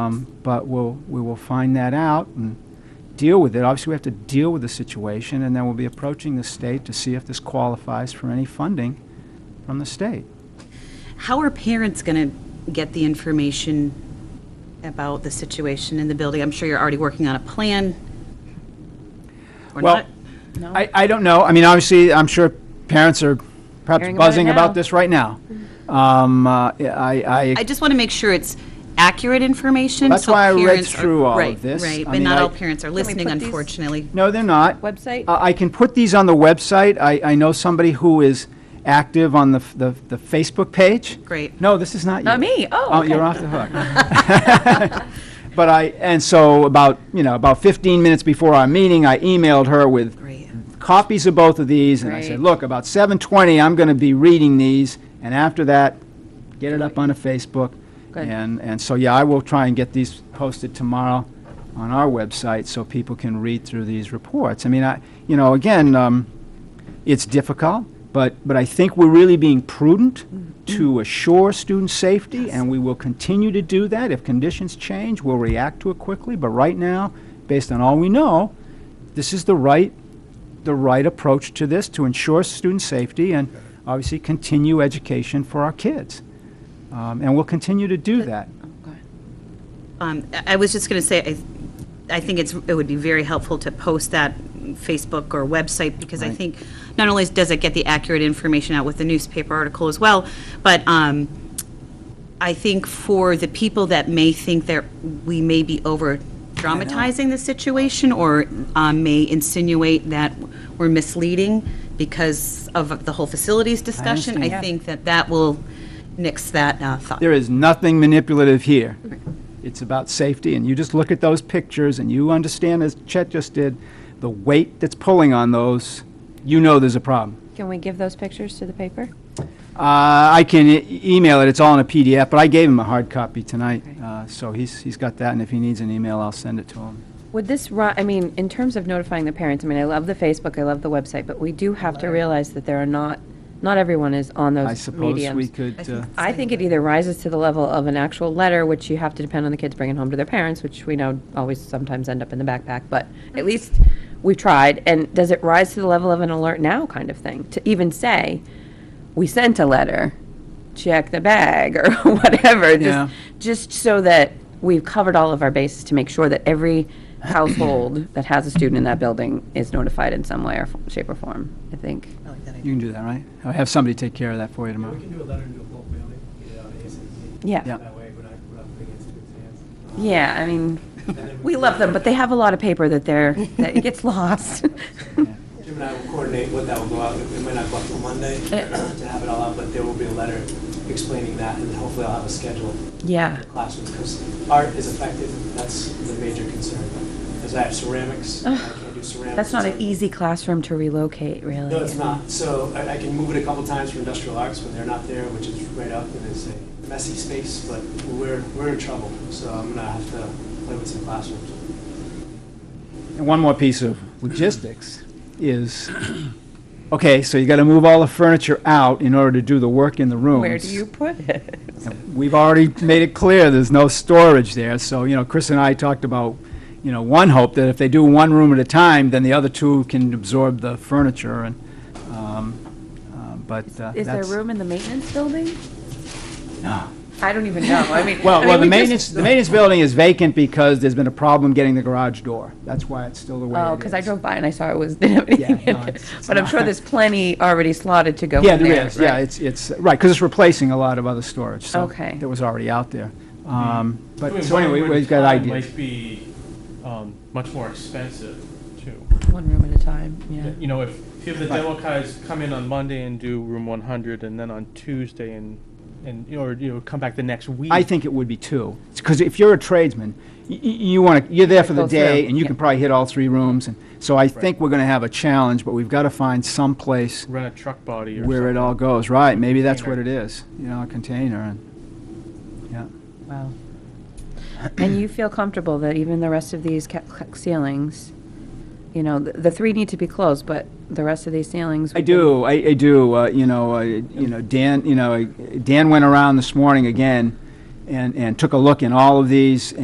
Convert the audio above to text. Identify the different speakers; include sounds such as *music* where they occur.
Speaker 1: Um, But we'll, we will find that out and deal with it. Obviously, we have to deal with the situation, and then we'll be approaching the state to see if this qualifies for any funding from the state.
Speaker 2: How are parents going to get the information about the situation in the building? I'm sure you're already working on a plan. Or
Speaker 1: Well,
Speaker 2: not? No?
Speaker 1: I, I don't know. I mean, obviously, I'm sure parents are perhaps
Speaker 3: Hearing about it
Speaker 1: buzzing about
Speaker 3: now.
Speaker 1: this right now. Um, uh, I, I
Speaker 2: I just want to make sure it's accurate information.
Speaker 1: That's
Speaker 2: so
Speaker 1: why I read
Speaker 2: parents are-
Speaker 1: through all of
Speaker 2: right,
Speaker 1: this.
Speaker 2: Right,
Speaker 1: I
Speaker 2: but
Speaker 1: mean,
Speaker 2: not
Speaker 1: I-
Speaker 2: all parents are listening,
Speaker 3: put these-
Speaker 2: unfortunately.
Speaker 1: No, they're not.
Speaker 3: Website?
Speaker 1: Uh, I can put these on the website. I, I know somebody who is active on the, f- the the Facebook page.
Speaker 2: Great.
Speaker 1: No, this is not you.
Speaker 3: Not me. Oh, okay.
Speaker 1: you're off the
Speaker 3: *laughs*
Speaker 1: hook. *laughs* But I, and so about, you know, about 15 minutes before our meeting, I emailed her with
Speaker 2: Great.
Speaker 1: copies of both of these, and I said,
Speaker 3: Great.
Speaker 1: look, about 7:20, I'm going to be reading these, and after that, get it up on a Facebook.
Speaker 3: Good.
Speaker 1: And, and so, yeah, I will try and get these posted tomorrow on our website so people can read through these reports. I mean, I, you know, again, um, it's difficult, but, but I think we're really being prudent
Speaker 3: Mm-hmm.
Speaker 1: to assure student safety, and we will continue to do that. If conditions change, we'll react to it quickly, but right now, based on all we know, this is the right, the right approach to this to ensure student safety and obviously continue education for our kids. Um, and we'll continue to do that.
Speaker 2: Um, I I was just going to say, I, I think it's, it would be very helpful to post that Facebook or website, because I
Speaker 1: Right.
Speaker 2: think not only does it get the accurate information out with the newspaper article as well, but um, I think for the people that may think that we may be over dramatizing the situation, or um, may insinuate that we're misleading because of the whole facilities discussion, I
Speaker 1: understand.
Speaker 2: think that that will nix that uh, thought.
Speaker 1: There is nothing manipulative here. It's about safety, and you just look at those pictures and you understand, as Chet just did, the weight that's pulling on those, you know there's a problem.
Speaker 3: Can we give those pictures to the paper?
Speaker 1: Uh, I can e- email it, it's all in a PDF, but I gave him a hard copy tonight, uh, so he's, he's got that, and if he needs an email, I'll send it to him.
Speaker 3: Would this, ru- I mean, in terms of notifying the parents, I mean, I love the Facebook, I love the website, but we do have to realize that there are not, not everyone is on
Speaker 1: I
Speaker 3: those
Speaker 1: suppose we
Speaker 3: mediums.
Speaker 1: could, uh,
Speaker 3: I think it either rises to the level of an actual letter, which you have to depend on the kids bringing home to their parents, which we know always sometimes end up in the backpack, but at least we've tried. And does it rise to the level of an alert now kind of thing? To even say, we sent a letter, check the bag *laughs* or whatever,
Speaker 1: Yeah.
Speaker 3: just, just so that we've covered all of our bases to make sure that every household that has a student in that building is notified in some way or f- shape or form, I think.
Speaker 1: you can do that, right? I'll have somebody take care of that for you
Speaker 4: Yeah,
Speaker 1: tomorrow.
Speaker 4: we can do a letter and do a bulk mailing, get it out ASAP.
Speaker 3: Yeah.
Speaker 1: Yeah.
Speaker 4: That way, we're not, we're not putting it in students' hands.
Speaker 3: Yeah, I mean, we love them, but they have a lot of paper that
Speaker 1: *laughs*
Speaker 3: they're, that it gets lost.
Speaker 4: Jim and I will coordinate what that will go out, it might not go out till Monday
Speaker 3: Eh.
Speaker 4: to have it all out, but there will be a letter explaining that, and hopefully I'll have a schedule
Speaker 3: Yeah.
Speaker 4: for classrooms, because art is affected, that's the major concern. Because I have ceramics, I can't do ceramics.
Speaker 3: That's not an
Speaker 4: It's-
Speaker 3: easy classroom to relocate, really.
Speaker 4: No, it's not. So I, I can move it a couple times for industrial arts when they're not there, which is right up and it's a messy space, but we're, we're in trouble. So I'm gonna have to play with some classrooms.
Speaker 1: And one more piece of logistics is, *clears throat* okay, so you got to move all the furniture out in order to do the work in the rooms.
Speaker 3: Where do you put it?
Speaker 1: We've already made it clear there's no storage there, so, you know, Chris and I talked about, you know, one hope that if they do one room at a time, then the other two can absorb the furniture and, um, uh, but uh, that's.
Speaker 3: Is there room in the maintenance building?
Speaker 1: No.
Speaker 3: I don't even know, I mean.
Speaker 1: *laughs*
Speaker 3: I
Speaker 1: Well,
Speaker 3: mean,
Speaker 1: well, the
Speaker 3: we just-
Speaker 1: maintenance, the maintenance building is vacant because there's been a problem getting the garage door. That's why it's still the way it is.
Speaker 3: Oh, because I drove by and I saw it was, *laughs* didn't have anything
Speaker 1: Yeah, no,
Speaker 3: in it.
Speaker 1: it's- it's
Speaker 3: But I'm sure
Speaker 1: not.
Speaker 3: there's plenty already slotted to go in
Speaker 1: Yeah,
Speaker 3: there.
Speaker 1: there is, yeah,
Speaker 3: right?
Speaker 1: it's, it's, right, because it's replacing a lot of other storage, so.
Speaker 3: Okay. Mm-hmm.
Speaker 1: That was already out there. Um,
Speaker 5: I mean,
Speaker 1: But, so
Speaker 5: one
Speaker 1: anyway,
Speaker 5: room at
Speaker 1: we've
Speaker 5: a
Speaker 1: got
Speaker 5: time
Speaker 1: ideas.
Speaker 5: Might be um, much more expensive too.
Speaker 3: One room at a time, yeah.
Speaker 5: You know, if if you have the demo guys come in on Monday and do room 100, and then on Tuesday and and you know, or you know come back the next week.
Speaker 1: I think it would be two, because if you're a tradesman, y- y- you want to, you're there for the
Speaker 3: Go
Speaker 1: day,
Speaker 3: through,
Speaker 1: and you can
Speaker 3: yeah.
Speaker 1: probably hit all three rooms, and, so I think we're going to have a challenge, but we've got to find some place
Speaker 5: rent a truck body or
Speaker 1: where it all goes, right, maybe that's what it is, you know, a container, and, yeah.
Speaker 3: Wow. And you feel comfortable that even the rest of these ca- ca- ceilings, you know, the, the three need to be closed, but the rest of these ceilings.
Speaker 1: I do, I, I do, uh, you know, uh, you know, uh, Dan, you know, Dan went around this morning again and, and took a look in all of these,